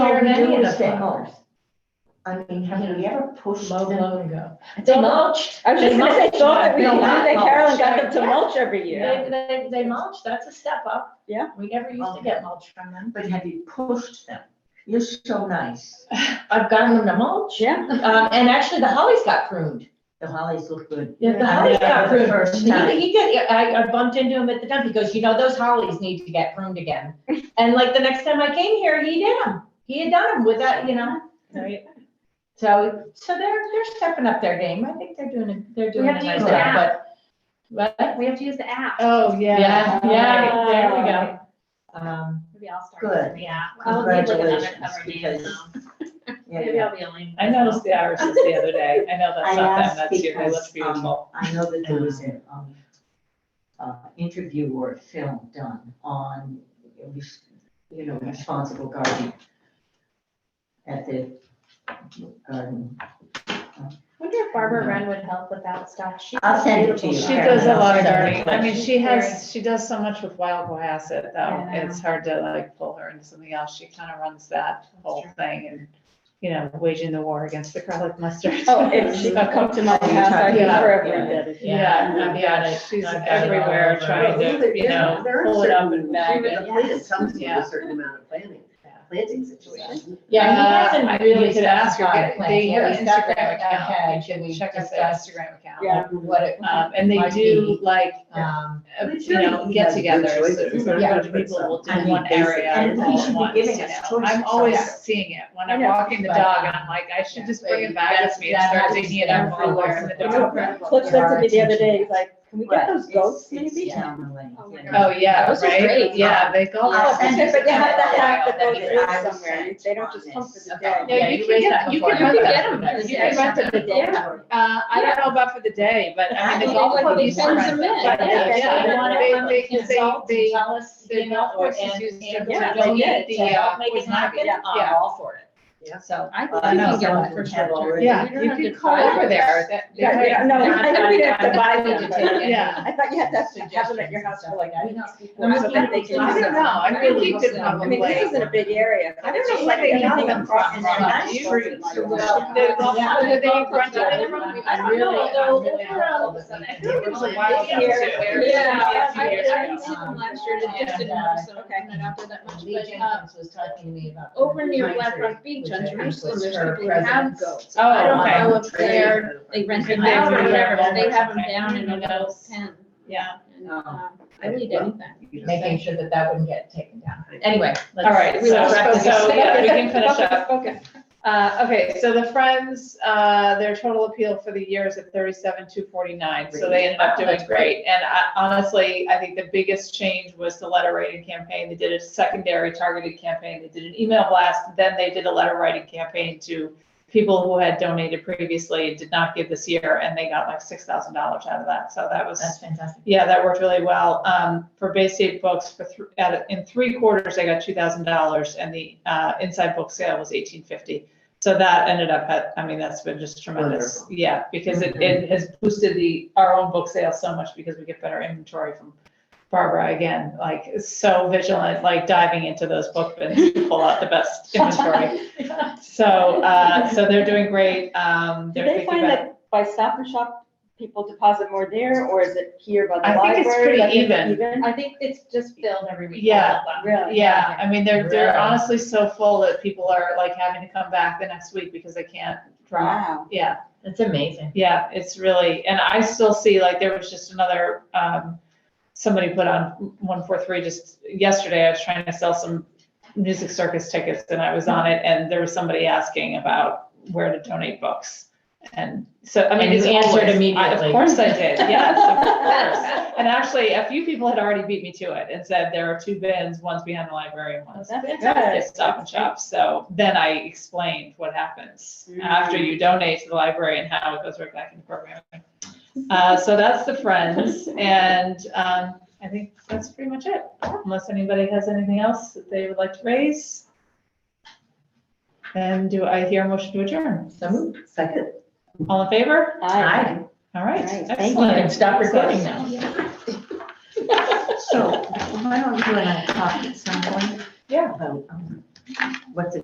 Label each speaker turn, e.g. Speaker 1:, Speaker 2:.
Speaker 1: heard
Speaker 2: we
Speaker 1: any
Speaker 2: do
Speaker 1: of the
Speaker 2: with sinkholes?
Speaker 1: I mean, have we ever pushed
Speaker 2: Low,
Speaker 1: them?
Speaker 2: low ago.
Speaker 1: They mulch.
Speaker 3: I was just gonna say,
Speaker 1: They mulch.
Speaker 3: thought every year,
Speaker 1: They mulch.
Speaker 3: that Carolyn got them to
Speaker 2: Yeah.
Speaker 3: mulch every year.
Speaker 2: They, they, they mulch, that's a step up.
Speaker 3: Yeah.
Speaker 2: We never used to get mulch from them.
Speaker 1: But have you pushed them? You're so nice.
Speaker 2: I've gotten them to mulch.
Speaker 3: Yeah,
Speaker 2: Um, and actually, the hollies got pruned.
Speaker 1: The hollies look good.
Speaker 2: Yeah, the
Speaker 1: I
Speaker 2: hollies got
Speaker 1: remember the
Speaker 2: pruned.
Speaker 1: first time.
Speaker 2: He, he did, I, I bumped into him at the dump, he goes, you know, those hollies need to get pruned again. And like the next time I came here, he did them, he had done them with that, you know.
Speaker 3: Right.
Speaker 2: So, so they're, they're stepping up their game, I think they're doing, a- they're doing
Speaker 4: have
Speaker 2: a
Speaker 4: to
Speaker 2: nice
Speaker 1: use
Speaker 2: job,
Speaker 4: that.
Speaker 2: but. What?
Speaker 4: We have to use the app.
Speaker 3: Oh,
Speaker 2: Yeah, yeah,
Speaker 3: Yeah.
Speaker 2: there we go. Um,
Speaker 4: Maybe I'll start.
Speaker 1: Good.
Speaker 4: Yeah. I'll leave like another
Speaker 1: Congratulations,
Speaker 4: cover name,
Speaker 1: because-
Speaker 4: um,
Speaker 1: Yeah,
Speaker 4: Maybe
Speaker 1: yeah.
Speaker 4: I'll be only.
Speaker 5: I noticed the irises the other day. I know
Speaker 1: I
Speaker 5: that's not them,
Speaker 1: asked
Speaker 5: that's you. They
Speaker 1: because,
Speaker 5: look beautiful.
Speaker 1: um, I know that there was a, um, uh, interview or film done on, you know, responsible gardening at the garden.
Speaker 4: Wonder if Barbara Wren would help with that stuff. She
Speaker 1: Mm-hmm. I'll
Speaker 4: does
Speaker 1: send it to
Speaker 4: beautiful
Speaker 1: you.
Speaker 4: stuff.
Speaker 5: She does a lot of
Speaker 1: gardening.
Speaker 5: gardening. I mean, she has, she does so much with wild Cohasset, though.
Speaker 4: Yeah.
Speaker 5: It's hard to like pull her into something else. She kind of runs that whole
Speaker 4: true.
Speaker 5: thing and, you know, waging the war against the garlic mustard.
Speaker 3: Oh, if she could come to my house, I'd be
Speaker 5: Yeah.
Speaker 3: forever
Speaker 1: Yeah.
Speaker 3: indebted.
Speaker 5: Yeah,
Speaker 2: Yeah,
Speaker 5: I've got it. She's
Speaker 2: I've got it all
Speaker 5: everywhere
Speaker 2: over.
Speaker 5: trying to, you know, pull it up and bag it.
Speaker 6: It comes to a
Speaker 5: Yeah.
Speaker 6: certain amount of planning,
Speaker 5: Yeah.
Speaker 6: planting situation.
Speaker 2: yeah, he
Speaker 5: Uh, I-
Speaker 2: hasn't
Speaker 5: you
Speaker 2: really
Speaker 5: could ask her,
Speaker 2: specified
Speaker 5: they-
Speaker 2: plans.
Speaker 5: they-
Speaker 2: When
Speaker 5: her
Speaker 2: he's got
Speaker 5: Instagram
Speaker 2: that
Speaker 5: account,
Speaker 2: package,
Speaker 5: you
Speaker 2: and
Speaker 5: can
Speaker 2: we
Speaker 5: check out
Speaker 2: discussed
Speaker 5: their Instagram account.
Speaker 3: Yeah.
Speaker 2: What it,
Speaker 5: Um, and they do like,
Speaker 2: um,
Speaker 5: uh,
Speaker 6: But
Speaker 5: you know,
Speaker 6: surely he
Speaker 5: get
Speaker 6: has good
Speaker 5: togethers, so
Speaker 6: choices.
Speaker 5: a
Speaker 2: Yeah.
Speaker 5: bunch of people will do
Speaker 1: I mean,
Speaker 5: one
Speaker 1: basic-
Speaker 5: area
Speaker 1: and he
Speaker 5: all
Speaker 1: should
Speaker 5: at
Speaker 1: be
Speaker 5: once, you
Speaker 1: giving us
Speaker 5: know.
Speaker 1: choices
Speaker 5: I'm always
Speaker 1: somewhere.
Speaker 5: seeing it, when
Speaker 3: I
Speaker 5: I'm
Speaker 3: know.
Speaker 5: walking the
Speaker 2: But,
Speaker 5: dog,
Speaker 2: um,
Speaker 5: I'm like, I should just
Speaker 2: yeah.
Speaker 5: bring it back
Speaker 2: That's-
Speaker 5: with me and
Speaker 2: that
Speaker 5: start
Speaker 2: happens
Speaker 5: digging it up
Speaker 2: everywhere.
Speaker 5: everywhere in the dog.
Speaker 3: Clip said to me the other day, he's like, can we get
Speaker 1: Right.
Speaker 3: those
Speaker 1: It's-
Speaker 3: goats
Speaker 1: it's
Speaker 3: maybe?
Speaker 1: down the lane,
Speaker 4: Oh my
Speaker 1: you know.
Speaker 5: Oh, yeah,
Speaker 3: Those are
Speaker 5: right,
Speaker 3: great.
Speaker 5: yeah, they go.
Speaker 1: Yeah.
Speaker 3: Oh, but you have to have the goats
Speaker 5: Wild.
Speaker 1: Yeah.
Speaker 3: raised somewhere, they don't just come for the
Speaker 1: Okay.
Speaker 3: day.
Speaker 5: Yeah, you can get, you
Speaker 2: before.
Speaker 5: can rent
Speaker 2: You
Speaker 5: them.
Speaker 2: can get them.
Speaker 5: You can rent them for the day. Uh, I don't know about for the day, but I mean, the
Speaker 2: I
Speaker 5: golf
Speaker 2: think
Speaker 5: club
Speaker 2: they
Speaker 5: is
Speaker 2: send
Speaker 5: different.
Speaker 2: them in.
Speaker 5: But yeah, yeah,
Speaker 2: They want it from
Speaker 5: they- they- they-
Speaker 2: consult to
Speaker 5: they-
Speaker 2: tell us,
Speaker 5: the
Speaker 2: you know,
Speaker 5: golf
Speaker 2: or-
Speaker 5: course is
Speaker 2: and-
Speaker 5: used
Speaker 2: and
Speaker 5: to
Speaker 2: to
Speaker 5: donate
Speaker 2: donate
Speaker 5: the,
Speaker 2: to help
Speaker 5: uh,
Speaker 2: make it
Speaker 5: poison
Speaker 2: happen,
Speaker 5: ivy.
Speaker 2: I'm
Speaker 5: Yeah.
Speaker 2: all for it.
Speaker 5: Yeah.
Speaker 2: So.
Speaker 3: I
Speaker 1: Uh, no,
Speaker 3: think you can get
Speaker 1: some
Speaker 3: one
Speaker 1: of
Speaker 3: for
Speaker 1: them have
Speaker 3: sure.
Speaker 1: already-
Speaker 3: You
Speaker 5: Yeah,
Speaker 3: don't
Speaker 5: you
Speaker 3: have
Speaker 5: could
Speaker 3: to
Speaker 5: call
Speaker 3: buy
Speaker 5: over
Speaker 3: them.
Speaker 5: there. That-
Speaker 3: Yeah,
Speaker 5: they-
Speaker 3: yeah, no, I
Speaker 5: they're not
Speaker 3: know we
Speaker 5: gonna
Speaker 3: have to buy
Speaker 5: you
Speaker 3: them,
Speaker 5: to
Speaker 3: but-
Speaker 5: take it. Yeah.
Speaker 3: I thought you had to have them at your house for like.
Speaker 2: We don't speak
Speaker 5: I
Speaker 3: I bet they do.
Speaker 5: don't know, I really did
Speaker 3: I mean,
Speaker 5: probably.
Speaker 3: this isn't a big area.
Speaker 5: I don't know where they got them from.
Speaker 1: And they're not streets, so we're not-
Speaker 5: The golf-
Speaker 2: Yeah.
Speaker 5: whether they rent it in the room, I don't know, though.
Speaker 4: Yeah, I, I
Speaker 5: Yeah.
Speaker 4: didn't see them last year, I just didn't notice them,
Speaker 3: Okay.
Speaker 4: not out there that much,
Speaker 2: Lee
Speaker 4: but, uh,
Speaker 2: Jenkins was talking to me about.
Speaker 4: over near
Speaker 2: Pine
Speaker 4: Black
Speaker 2: Tree,
Speaker 4: Rock Beach
Speaker 2: which
Speaker 4: on
Speaker 2: I think
Speaker 4: Jerusalem,
Speaker 2: was
Speaker 4: there's
Speaker 2: her
Speaker 4: people who have
Speaker 2: president's-
Speaker 4: goats.
Speaker 5: Oh,
Speaker 4: I don't
Speaker 5: okay.
Speaker 4: know if they're, they rent them
Speaker 5: Could they
Speaker 4: out or
Speaker 5: do
Speaker 4: whatever,
Speaker 5: that?
Speaker 4: but they have them down in a
Speaker 5: Who
Speaker 4: little
Speaker 5: knows?
Speaker 4: pen.
Speaker 5: Yeah.
Speaker 4: And, um, I would anything.
Speaker 2: Making sure that that wouldn't get taken down. Anyway. let's-
Speaker 5: All right,
Speaker 2: we will
Speaker 5: so-
Speaker 2: wrap this
Speaker 5: so,
Speaker 2: up.
Speaker 5: yeah, we can finish up.
Speaker 3: Okay.
Speaker 5: Uh, okay, so the Friends, uh, their total appeal for the year is at thirty-seven, two forty-nine, so they ended up
Speaker 2: Wow,
Speaker 5: doing
Speaker 2: that's
Speaker 5: great. And I, honestly, I think the biggest change was the letter writing campaign. They did a secondary targeted campaign. They did an email blast, then they did a letter writing campaign to people who had donated previously and did not give this year, and they got like six thousand dollars out of that, so that was.
Speaker 2: That's fantastic.
Speaker 5: Yeah, that worked really well. Um, for Bay State Books, for thr at, in three quarters, I got two thousand dollars, and the uh, inside book sale was eighteen fifty. So that ended up at, I mean, that's been just tremendous. Yeah, because
Speaker 3: Mm-hmm.
Speaker 5: it, it has boosted the our own book sale so much because we get better inventory from Barbara again. Like is so vigilant, like diving into those book bins to pull out the best inventory. So uh, so they're doing great. Um,
Speaker 3: Do
Speaker 5: they're
Speaker 3: they
Speaker 5: thinking
Speaker 3: find
Speaker 5: about-
Speaker 3: that by Stop and Shop, people deposit more there, or is it here by the
Speaker 5: I think
Speaker 3: library?
Speaker 5: it's pretty
Speaker 3: Like,
Speaker 5: even.
Speaker 4: I think it's just filled every week.
Speaker 5: Yeah.
Speaker 3: Really?
Speaker 5: Yeah, I mean, they're, they're
Speaker 2: Really?
Speaker 5: honestly so full that people are like having to come back the next week because they can't draw.
Speaker 3: Wow.
Speaker 5: Yeah,
Speaker 2: That's amazing.
Speaker 5: yeah, it's really, and I still see, like, there was just another, um, somebody put on one, four, three, just yesterday, I was trying to sell some music circus tickets and I was on it and there was somebody asking about where to donate books. And so, I mean,
Speaker 2: And
Speaker 5: it's
Speaker 2: you answered
Speaker 5: always- I-
Speaker 2: immediately.
Speaker 5: Of course I did, yes, of course. And actually, a few people had already beat me to it and said there are two bins, one's behind the library and one's
Speaker 3: That's good.
Speaker 5: at Stop and Shop. So then I explained what happens
Speaker 2: Mm-hmm.
Speaker 5: after you donate to the library and how it goes right back into programming. Uh, so that's the Friends, and um, I think that's pretty much it. Unless anybody has anything else that they would like to raise. Then do I hear a motion to adjourn?
Speaker 2: So moved.
Speaker 1: Second.
Speaker 5: All in favor?
Speaker 3: Hi.
Speaker 5: All right,
Speaker 3: All right, thank
Speaker 2: Thank you. You can
Speaker 5: excellent.
Speaker 2: stop recording now.
Speaker 1: So why don't you and I talk at some point?
Speaker 5: Yeah.
Speaker 1: About um, what the